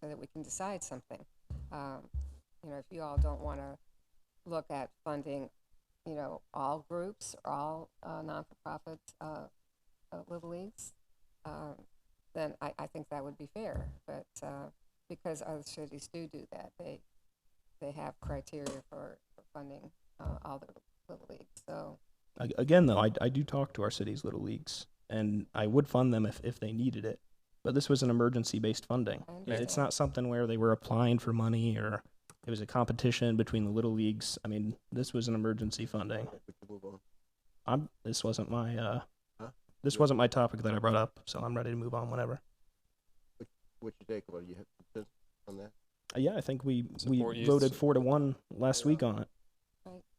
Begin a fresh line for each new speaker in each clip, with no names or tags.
so that we can decide something. Um, you know, if you all don't want to look at funding, you know, all groups, or all uh, non-for-profit uh, uh, little leagues, um, then I, I think that would be fair. But uh, because other cities do do that, they they have criteria for, for funding uh, all the little leagues. So
Ag- Again, though, I, I do talk to our city's little leagues, and I would fund them if, if they needed it. But this was an emergency based funding.
I
It- It's
understand.
not something where they were applying for money or it was a competition between the little leagues. I mean, this was an emergency funding.
We can move on.
I'm this wasn't my uh,
Huh?
this wasn't my topic that I brought up, so I'm ready to move on whenever.
What's your take, Laura? You have consensus on that?
Uh, yeah, I think we
Support
we
youth.
voted four to one last week on it.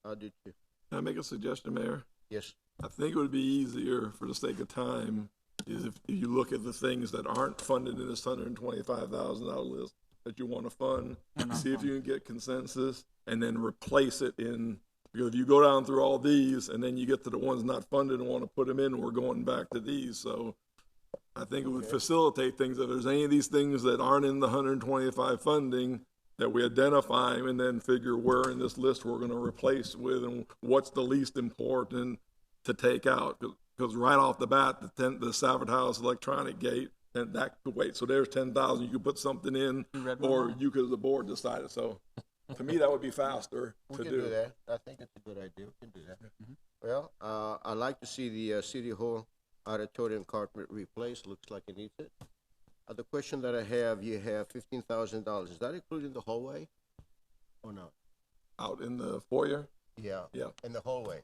I'll do two.
Can I make a suggestion, Mayor?
Yes.
I think it would be easier for the sake of time is if you look at the things that aren't funded in this hundred and twenty-five thousand dollar list that you want to fund, see if you can get consensus and then replace it in, because if you go down through all these and then you get to the ones not funded and want to put them in, we're going back to these, so I think it would facilitate things. If there's any of these things that aren't in the hundred and twenty-five funding, that we identify 'em and then figure where in this list we're gonna replace with and what's the least important to take out. Because right off the bat, the ten, the Savard House electronic gate, and that could wait. So there's ten thousand, you could put something in, or you could, as a board, decide it. So to me, that would be faster
We
to
can do
do.
that. I think it's a good idea. We can do that. Well, uh, I'd like to see the, uh, City Hall auditorium carpet replaced. Looks like it needs it. Uh, the question that I have, you have fifteen thousand dollars. Is that including the hallway? Or not?
Out in the foyer?
Yeah.
Yeah.
In the hallway?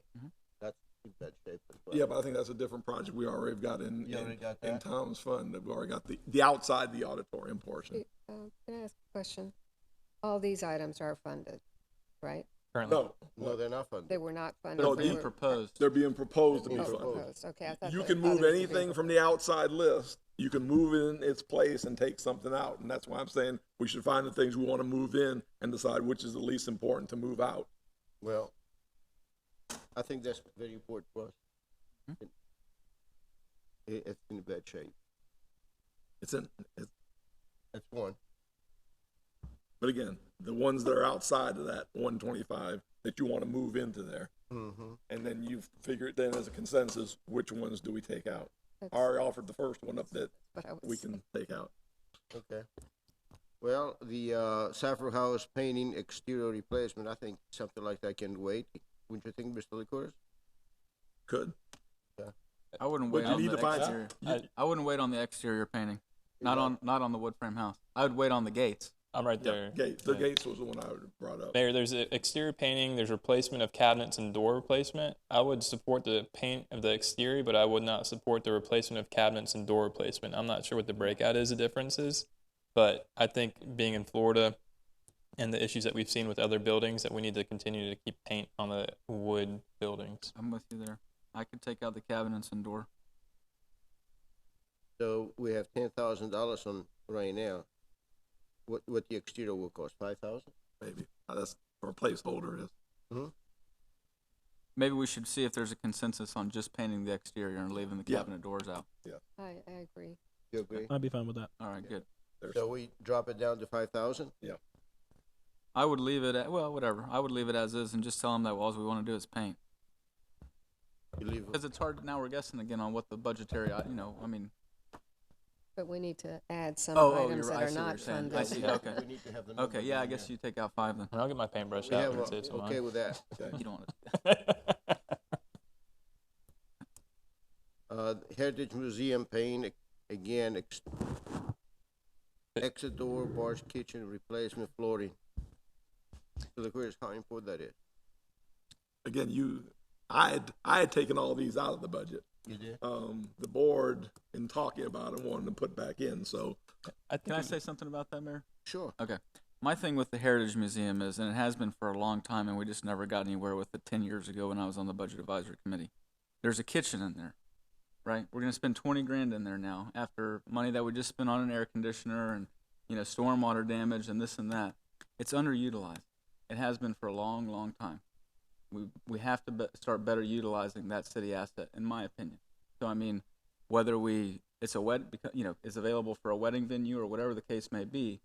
That's in bad shape as well.
Yeah, but I think that's a different project we already got in,
You already
in-
got
in
that?
Tom's fund. We've already got the, the outside the auditorium portion.
Uh, Can I ask a question? All these items are funded, right?
Currently,
No,
No, they're not funded.
They were not funded.
No,
they
these
were-
proposed.
they're being proposed to be
oh,
funded.
proposed. Okay, I thought.
You
the
can move
others were being
anything from the
proposed.
outside list. You can move it in its place and take something out. And that's why I'm saying we should find the things we want to move in and decide which is the least important to move out.
Well, I think that's very important for us. It, it's in bad shape.
It's in, it's,
That's one.
but again, the ones that are outside of that one twenty-five that you want to move into there.
Mm-hmm.
And then you figure it then as a consensus, which ones do we take out? I
That's
already offered the first one up that
what I was-
we can take out.
Okay. Well, the uh, Saffron House painting exterior replacement, I think something like that can wait. Wouldn't you think, Mr. Licorice?
Could.
I wouldn't
But
wait
you
on
need
the
to find-
exterior.
you-
I, I wouldn't wait on the exterior painting. Not on not on the wood frame house. I would wait on the gates.
I'm right there.
Gates, the
Yeah.
gates was the one I would've brought up.
Mayor, there's a exterior painting, there's replacement of cabinets and door replacement. I would support the paint of the exterior, but I would not support the replacement of cabinets and door replacement. I'm not sure what the breakout is, the difference is, but I think being in Florida and the issues that we've seen with other buildings, that we need to continue to keep paint on the wood buildings.
I'm with you there. I could take out the cabinets and door.
So we have ten thousand dollars on right now. What what the exterior will cost? Five thousand.
Maybe. Uh, That's where placeholder is.
Maybe we should see if there's a consensus on just painting the exterior and leaving the
Yeah.
cabinet doors out.
I, I agree.
You agree?
I'd be fine with that.
All right, good.
There's-
So we drop it down to five thousand.
I would leave it at well, whatever. I would leave it as is and just tell them that all we want to do is paint.
You leave.
Because it's hard now. We're guessing again on what the budgetary. I- You know, I mean,
But we need to add some
Oh, oh,
items
you're-
that
I
are
see what
not
you're saying.
funded.
I see, okay.
We need to have the number
okay, yeah. I
down
guess
there.
you take out five then.
And I'll get my paintbrush
We
out
have
and
a-
say it's
okay with that.
You don't want to.
mine.
Uh, Heritage Museum paint again. Ex- exit door, bars, kitchen replacement flooring. So the question is how important that is.
again, you, I had, I had taken all these out of the budget.
You did.
Um, the board in talking about it wanted to put back in, so
I think
Can I
we-
say something about that, Mayor?
Sure.
Okay. My thing with the Heritage Museum is, and it has been for a long time, and we just never got anywhere with it 10 years ago when I was on the Budget Advisory Committee. There's a kitchen in there, right? We're going to spend 20 grand in there now after money that we just spent on an air conditioner and, you know, stormwater damage and this and that. It's underutilized. It has been for a long, long time. We, we have to be- start better utilizing that city asset, in my opinion. So, I mean, whether we, it's a wed, becau- you know, is available for a wedding venue or whatever the case may be,